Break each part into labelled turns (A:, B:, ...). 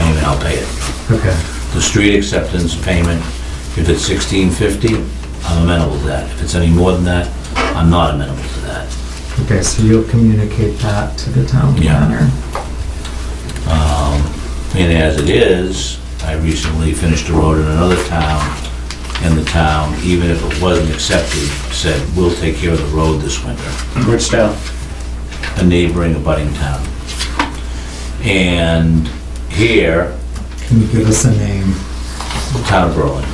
A: I'll pay it.
B: Okay.
A: The street acceptance payment, if it's sixteen fifty, I'm amenable to that. If it's any more than that, I'm not amenable to that.
B: Okay, so you'll communicate that to the town
A: Yeah.
B: planner?
A: And as it is, I recently finished a road in another town, and the town, even if it wasn't accepted, said, we'll take care of the road this winter.
C: Which town?
A: a neighboring abutting town. And here,
B: Can you give us a name?
A: the town of Berlin.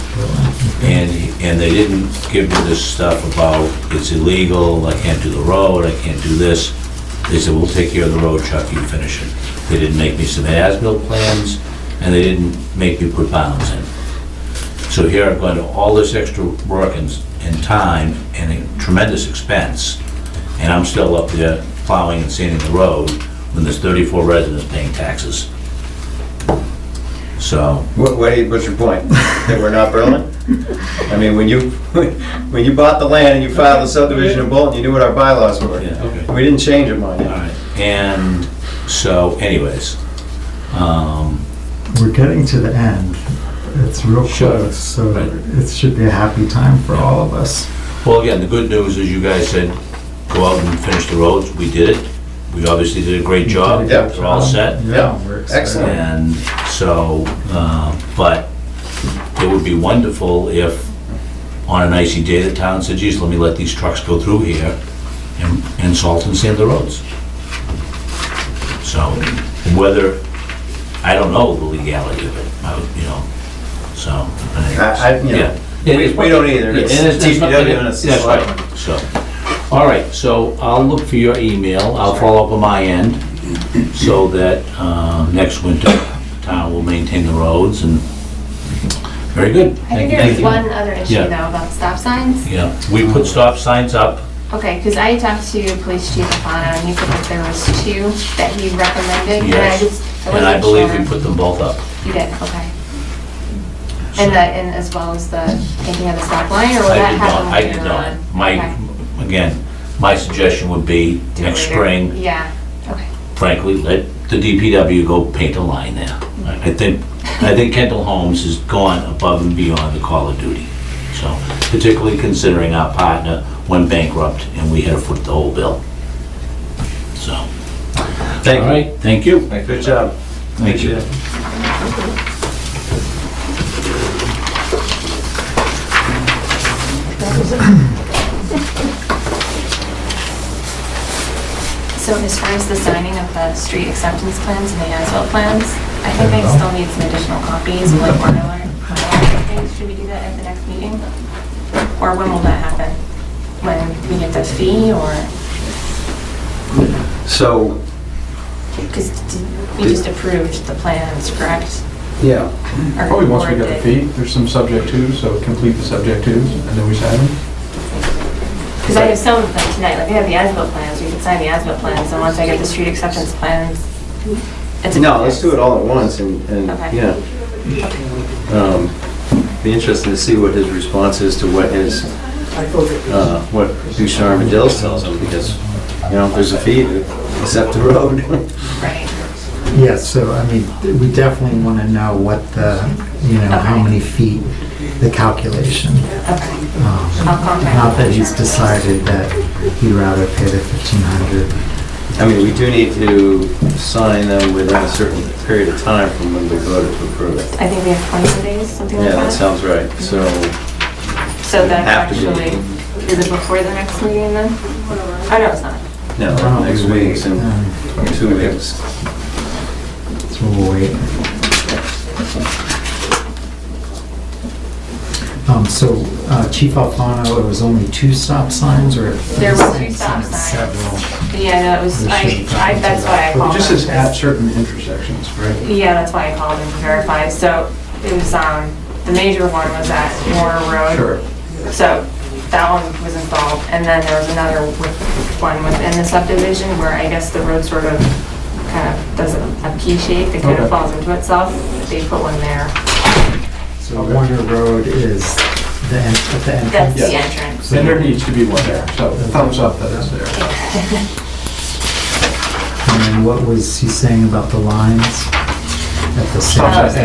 A: And, and they didn't give me this stuff about it's illegal, I can't do the road, I can't do this. They said, we'll take care of the road, Chuck, you finish it. They didn't make me submit as-built plans, and they didn't make me put bounds in. So here I've gone to all this extra work and, and time and tremendous expense, and I'm still up there plowing and sanding the road when there's 34 residents paying taxes. So,
C: What, what- what's your point? That we're not Berlin? I mean, when you, when you bought the land and you filed the subdivision in Bolton, you knew what our bylaws were.
A: yeah, okay.
C: We didn't change them on you.
A: Alright, and so anyways, um,
B: We're getting to the end. It's real
A: Sure.
B: close, so
A: Right.
B: it should be a happy time for all of us.
A: well, again, the good news is you guys said, go out and finish the roads, we did it. We obviously did a great job,
C: Yeah.
A: we're all set,
B: Yeah, we're excited.
C: Excellent.
A: and so, uh, but it would be wonderful if on an icy day, the town said, geez, let me let these trucks go through here and and salt and sand the roads. So whether, I don't know the legality of it, I would, you know, so.
C: I, I, you know,
A: Yeah.
C: we, we don't either. It's
A: Yeah, and it's-
C: it's
A: it's not-
C: DPW and it's. the
A: That's right,
C: selectmen.
A: so, all right, so I'll look for your email, I'll follow up on my end, so that, uh, next winter, the town will maintain the roads and, very good.
D: I think
A: Thank you.
D: there's one other issue
A: Yeah.
D: though about stop signs.
A: Yeah, we put stop signs up,
D: Okay, because I talked to Police Chief Afano and he said that there was two that he recommended. and I
A: Yes.
D: just
A: and I
D: wasn't
A: believe we
D: sure.
A: put them both up.
D: You did, okay. And that, and as well as the taking of the stop line or will
A: I
D: that
A: did not,
D: happen
A: I did
D: later on?
A: not. My,
D: Okay.
A: again, my suggestion would be,
D: Do it
A: next
D: later.
A: spring,
D: Yeah, okay.
A: frankly, let the DPW go paint a line there. I I think, I think Kendall Holmes has gone above and beyond the call of duty. So, particularly considering our partner went bankrupt and we had to foot the whole bill. So, all
C: Thank
A: right, thank you.
C: you. Good job.
A: Thank you.
D: So as far as the signing of the street acceptance plans and the asphalt plans, I think I
E: Uh-huh.
D: still need some additional copies, like one or things. Should we do that at the next meeting? Or when will that happen? When we get the fee or,
C: So,
D: because we just approved the plans, correct?
C: yeah.
D: Or
E: Probably once we get the
D: did-
E: fee, there's some subject twos, so complete the subject twos, and then we sign them.
D: Because I have some of them tonight, like I have the ASBIL plans, we can sign the ASBIL plans, and once I get the street acceptance plans, it's a...
C: No, let's do it all at once and, and,
D: Okay.
C: yeah. Um, Be interesting to see what his response is to what his, uh, what Ducharme and Dills tells him, because, you know, if there's a fee to accept the road.
D: Right.
B: Yeah, so I mean, we definitely want to know what the, you know, how many feet, the calculation. Um,
D: I'll contact...
B: Not that he's decided that he'd rather pay the fifteen hundred.
C: I mean, we do need to sign them within a certain period of time from when we voted to approve it.
D: I think we have 24 days, something like
C: Yeah,
D: that.
C: that sounds right, so,
D: So that's
C: Have to be.
D: actually, is it before the next meeting then? Oh, no, it's not.
C: no, next week's in
B: Um,
C: two weeks.
B: So we'll wait. Um, so uh, Chief Alfano, it was only two stop signs or?
D: There were two stop signs.
B: Several.
D: Yeah, that was, I, I, that's why I
E: It
D: called.
E: just
D: him.
E: says at certain intersections, right?
D: Yeah, that's why I called him to verify. So it was, um, the major one was at Moore Road.
E: Sure.
D: So that one was involved, and then there was another with- one within the subdivision where I guess the road sort of kind of does a a P shape, it kind of
E: Okay.
D: falls into itself. They put one there.
B: So Warner Road is the, en- at the entrance.
D: That's the
E: Yeah.
D: entrance.
E: Then there needs to be one there, so thumbs up that it's there.
B: And then what was he saying about the lines?
F: at the
B: Stop
F: same.
B: sign.